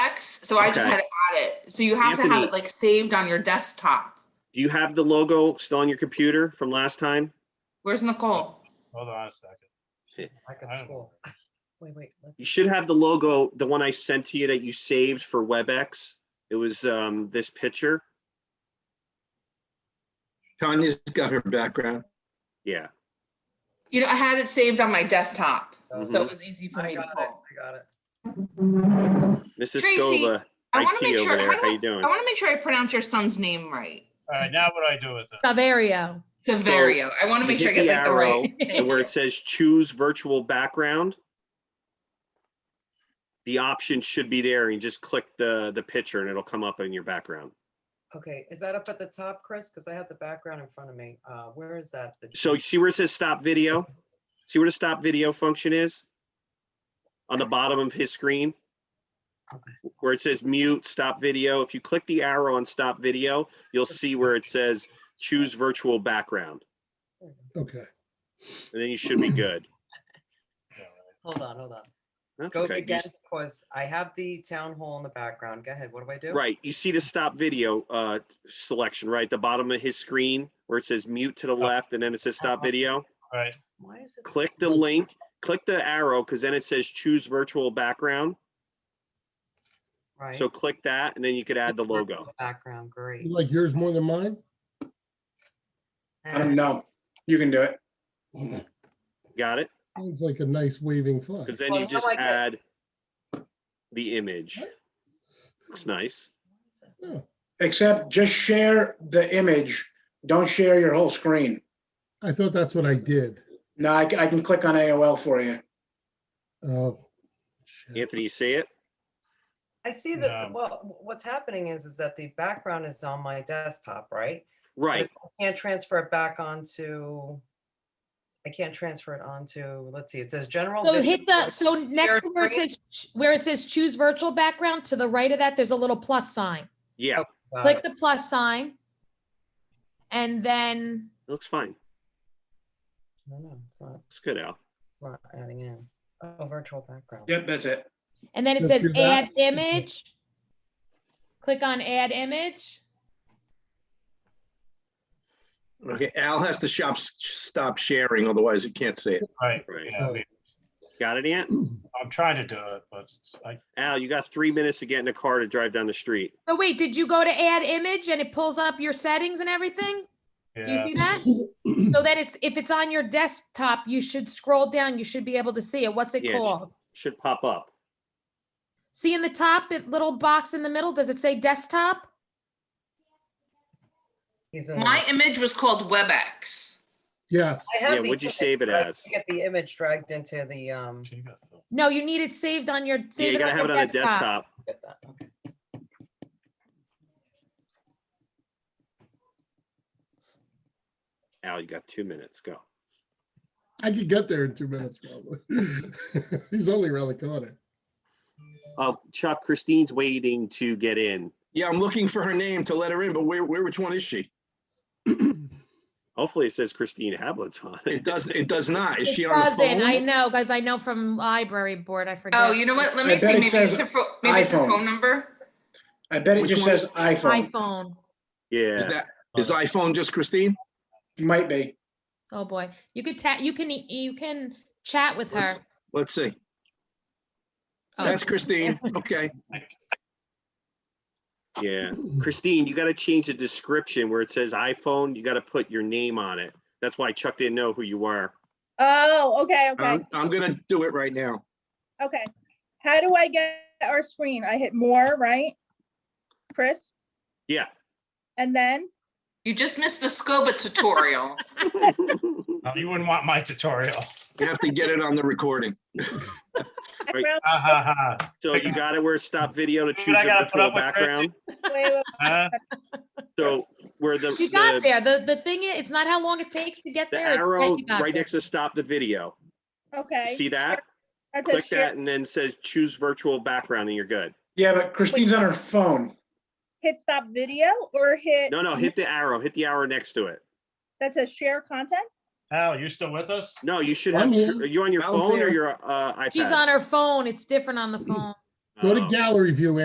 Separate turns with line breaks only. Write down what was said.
Yes, so I just
Okay. e-
had to add it. So you have to have
Anthony-
it like saved on your desktop.
Do you have the logo still on your computer from last time?
Where's Nicole?
Hold on a second.
Back
I
at
don't
school. Wait, wait. let's-
You should have the logo, the one I sent to you that you saved for WebEx. It was um, this picture.
Tanya's got her background.
Yeah.
You know, I had it saved on my desktop, so
Mhm.
it was easy for
I
me to
got it,
pull.
I got it.
Mrs.
Tracy,
Scova,
I want to
IT
make
over
sure,
there.
how
How you
do I,
doing?
I want to make sure I pronounce your son's name right.
All right, now what do I do with it?
Saverio.
Severio. I want to make sure I
hit
get
the
like the right.
And where it says choose virtual background, the option should be there and just click the, the picture and it'll come up in your background.
Okay, is that up at the top, Chris? Because I have the background in front of me. Uh, where is that? The-
So you see where it says stop video? See where the stop video function is? On the bottom of his screen? Where it says mute, stop video. If you click the arrow on stop video, you'll see where it says choose virtual background.
Okay.
And then you should be good.
Hold on, hold on.
That's
Go
okay. You
again,
s-
because I have the town hall in the background. Go ahead, what do I do?
Right, you see the stop video uh selection, right? The bottom of his screen where it says mute to the left and then it says stop video.
All right,
Why is it?
Click the link, click the arrow, because then it says choose virtual background.
Right.
So click that and then you could add the logo.
Background, great.
You like yours more than mine?
I don't know. You can do it.
Got it?
It's like a nice waving flag.
Because then
Well,
you
how
just
I get-
add the image. Looks nice.
Yeah.
Except just share the image. Don't share your whole screen.
I thought that's what I did.
No, I, I can click on AOL for you.
Oh. shit.
Anthony, you see it?
I see that,
No.
well, what's happening is, is that the background is on my desktop, right? But
Right.
I Can't transfer it back onto, I can't transfer it onto, let's see, it says general.
So
video
hit the,
mode.
so next to where it
screen?
says, ch- where it says choose virtual background, to the right of that, there's a little plus sign.
Yeah,
Oh, Got
Click
it.
the plus sign. And then,
looks fine.
No, no, It's not,
Looks good, Al.
it's not adding in, oh, virtual background.
Yep, that's it.
and then it says
Let's do that.
add image. Click on add image.
Okay, Al has to shop, stop sharing, otherwise you can't see it.
all right.
Right.
yeah, we-
Got it, Ant?
I'm trying to do it, but it's- I,
Al, you got three minutes to get in the car to drive down the street.
So Oh, wait, did you go to add image and it pulls up your settings and everything? Do you
yeah,
see that? So that it's, if it's on your desktop, you should scroll down. You should be able to see it. What's it
Yeah, it's-
called?
Should pop up.
See in the top, it little box in the middle, does it say desktop?
He's in the-
My image was called WebEx.
Yes.
I have
Yeah,
the
what'd you
image,
save it
but I
as?
Get the image dragged into the, um,
you got Phil.
No, you need it saved on your.
Yeah,
save
you gotta have it
your
on the desktop.
get that, okay.
Al, you got two minutes. Go.
I could get there in two minutes probably. He's only around the corner.
Oh, Chuck, Christine's waiting to get in.
Yeah, I'm looking for her name to let her in, but where, where, which one is she?
Hopefully it says Christine Hablitz on it.
It does, it does not. Is she
It
on the
doesn't, I
phone?
know, guys, I know from library board, I forget.
Oh, you know what? Let me
I
see.
bet it
Maybe it's
says
her, pho- maybe it's her
iPhone.
phone number.
I bet it
Which
just
one?
says iPhone.
iPhone,
Is
Yeah,
that, is iPhone just Christine?
Might be.
oh boy, you could ta, you can, e- you can chat with her.
Let's- Let's see.
Oh.
That's Christine. Okay.
yeah. Christine, you gotta change the description where it says iPhone. You gotta put your name on it. That's why Chuck didn't know who you were.
Oh, okay, okay,
I'm, I'm gonna do it right now.
okay. How do I get our screen? I hit more, right? Chris,
Yeah.
and then,
You just missed the SCOBA tutorial.
Oh, You wouldn't want my tutorial.
You have to get it on the recording.
Right.
background,
Ha ha ha.
So you got it where it stop video to
Dude,
choose
I
a
gotta put
virtual
up with
background.
wait, wait,
Huh?
So where the,
You got
the,
there, the, the thing is, it's not how long it takes to get
the
there. it's that
arrow
you got
right
there.
next to stop the video.
okay.
See that?
That's a
Click
share-
that and then says choose virtual background and you're good.
Yeah, but Christine's on her phone.
Hit stop video or hit,
No, no, hit the arrow, hit the arrow next to it.
that says share content?
Al, you still with us?
No, you should have, are
I'm here.
you on your
Al's
phone or
here.
your uh, iPad?
She's on her phone, it's different on the phone.
Go to
Oh.
gallery view